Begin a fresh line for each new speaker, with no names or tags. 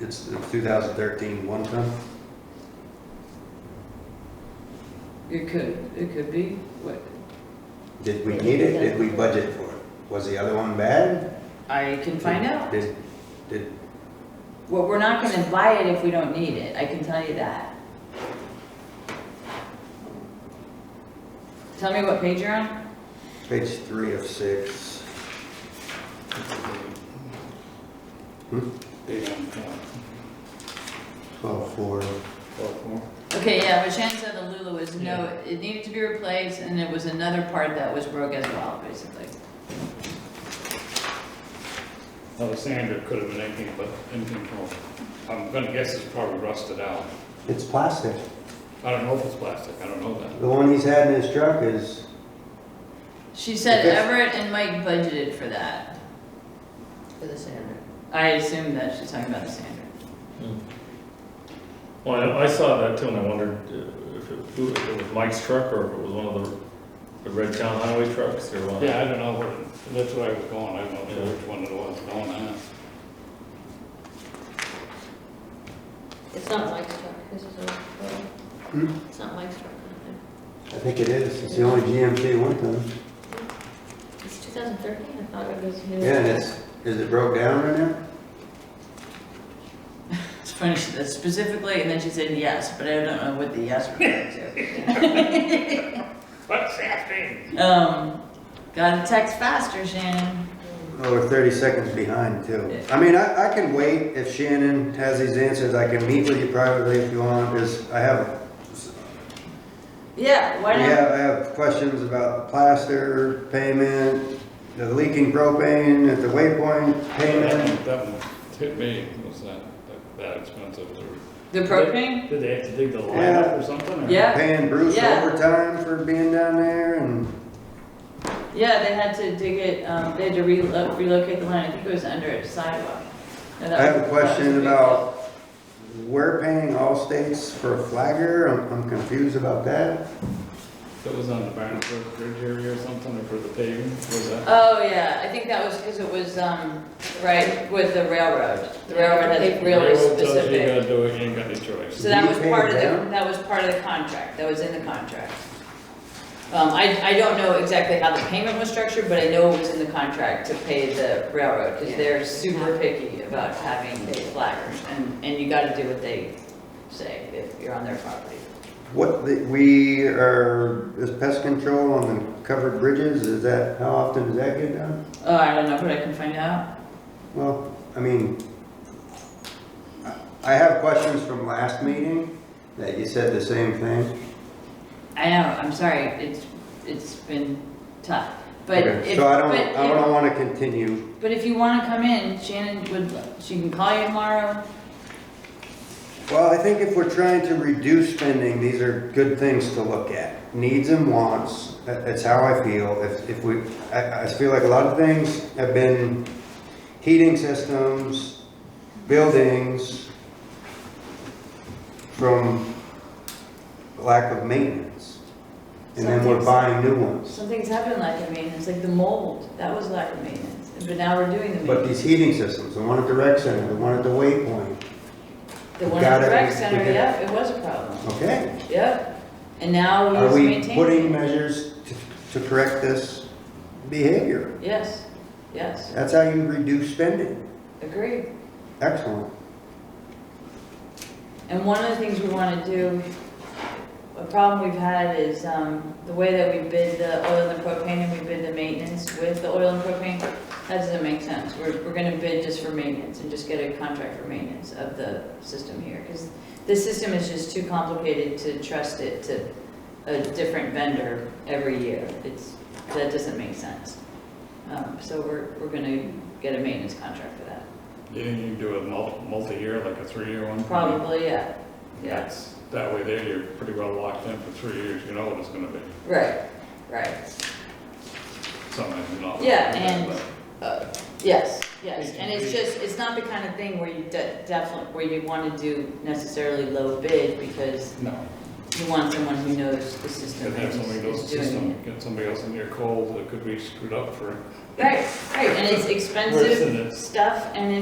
It's 2013 one ton?
It could, it could be, what,
Did we need it? Did we budget for it? Was the other one bad?
I can find out.
Did, did,
Well, we're not gonna buy it if we don't need it, I can tell you that. Tell me what page you're on?
page three of six,
Hmm? Eight on top.
12, four.
Twelve more.
Okay, yeah, but Shannon said the Lulu was no, it needed to be replaced, and it was another part that was broke as well, basically.
Alexander could have been anything but anything from, I'm gonna guess it's probably rusted out.
It's plastic.
I don't know if it's plastic, I don't know that.
The one he's had in his truck is,
She said
Okay.
Everett and Mike budgeted for that.
for the sander.
I assume that she's talking about the sander.
Hmm. Well, I- I saw that too, and I wondered uh, if it, who- if it was Mike's truck, or if it was one of the, the red town highway trucks, or one.
Yeah, I don't know where, that's where I was going, I don't know which one it was going on.
It's not Mike's truck, this is a,
Hmm?
it's not Mike's truck, I
I think it is, it's the only GMC one ton.
think. It's 2013, I thought it was new.
Yeah, and it's, is it broke down right now?
It's funny, she said specifically, and then she said yes, but I don't know what the yes referred to.
What's happening?
Um, gotta text faster, Shannon.
Oh, we're 30 seconds behind too. I mean, I, I can wait if Shannon has these answers. I can meet with you privately if you want, because I have,
Yeah, why
we
not?
have, I have questions about the plaster payment, the leaking propane at the waypoint
That
payment.
one, that one hit me, was that, that- that expensive, or,
The propane?
did they have to dig the line up or something? or-
Yeah.
Paying Bruce
Yeah.
overtime for being down there and,
Yeah, they had to dig it, um, they had to relo- relocate the line, I think it was under a sidewalk. No, that
I have a
was- that was
question
big
about- we're paying all states for a flagger. I'm, I'm confused about that.
That was on the Barnesburg Bridge area or something, or for the paving, was
deal.
that?
Oh, yeah, I think that was because it was, um, right, with the railroad. The railroad has really
Railroad tells You
specific.
gotta do it, you ain't got any choice.
So that
You
was
pay
part of the,
them?
that was part of the contract, that was in the contract. Um, I, I don't know exactly how the payment was structured, but I know it was in the contract to pay the railroad, because they're super picky about having flaggers, and, and you gotta do what they say if you're on their property.
What, the- we are, is pest control on the covered bridges, is that, how often does that get done?
Oh, I don't know, but I can find out.
Well, I mean, I- I have questions from last meeting that you said the same thing.
I know, I'm sorry, it's, it's been tough, but
Okay,
if,
So I
but
don't, I
if-
don't want to continue.
but if you wanna come in, Shannon would, she can call you tomorrow.
Well, I think if we're trying to reduce spending, these are good things to look at. Needs and wants, that- that's how I feel. If, if we, I, I feel like a lot of things have been heating systems, buildings, from lack of maintenance. And then we're
Something's-
buying new ones.
Something's happened lack of maintenance, like the mold, that was lack of maintenance, but now we're doing the
But
maintenance.
these heating systems, the one at the rec center, the one at the waypoint,
The
we
one at the
gotta-
rec
we- we
center,
gotta-
yep, it was a problem,
okay?
yep, and now
Are
we're
we putting
maintaining. it.
measures to, to correct this behavior?
Yes, yes,
That's how you reduce spending.
agree.
Excellent.
And one of the things we want to do, a problem we've had is um, the way that we bid the oil and the propane and we bid the maintenance with the oil and propane, that doesn't make sense. We're, we're going to bid just for maintenance and just get a contract for maintenance of the system here. Because this system is just too complicated to trust it to a different vendor every year. It's, that doesn't make sense. Um, So we're, we're going to get a maintenance contract for that.
You think you can do a mul- multi-year, like a three-year one?
Probably, yeah, yeah.
That's, that way there, you're pretty well locked in for three years, you know what it's gonna be,
Right, right.
something you know.
Yeah, and, uh, yes, yes, and it's just, it's not the kind of thing where you de- definitely, where you want to do necessarily low bid, because
No,
you want someone who knows the system
could have
and
somebody
is
else's
is doing it.
system, get somebody else in your cold that could be screwed up for
Right, right, and it's
worse
expensive
than this.
stuff, and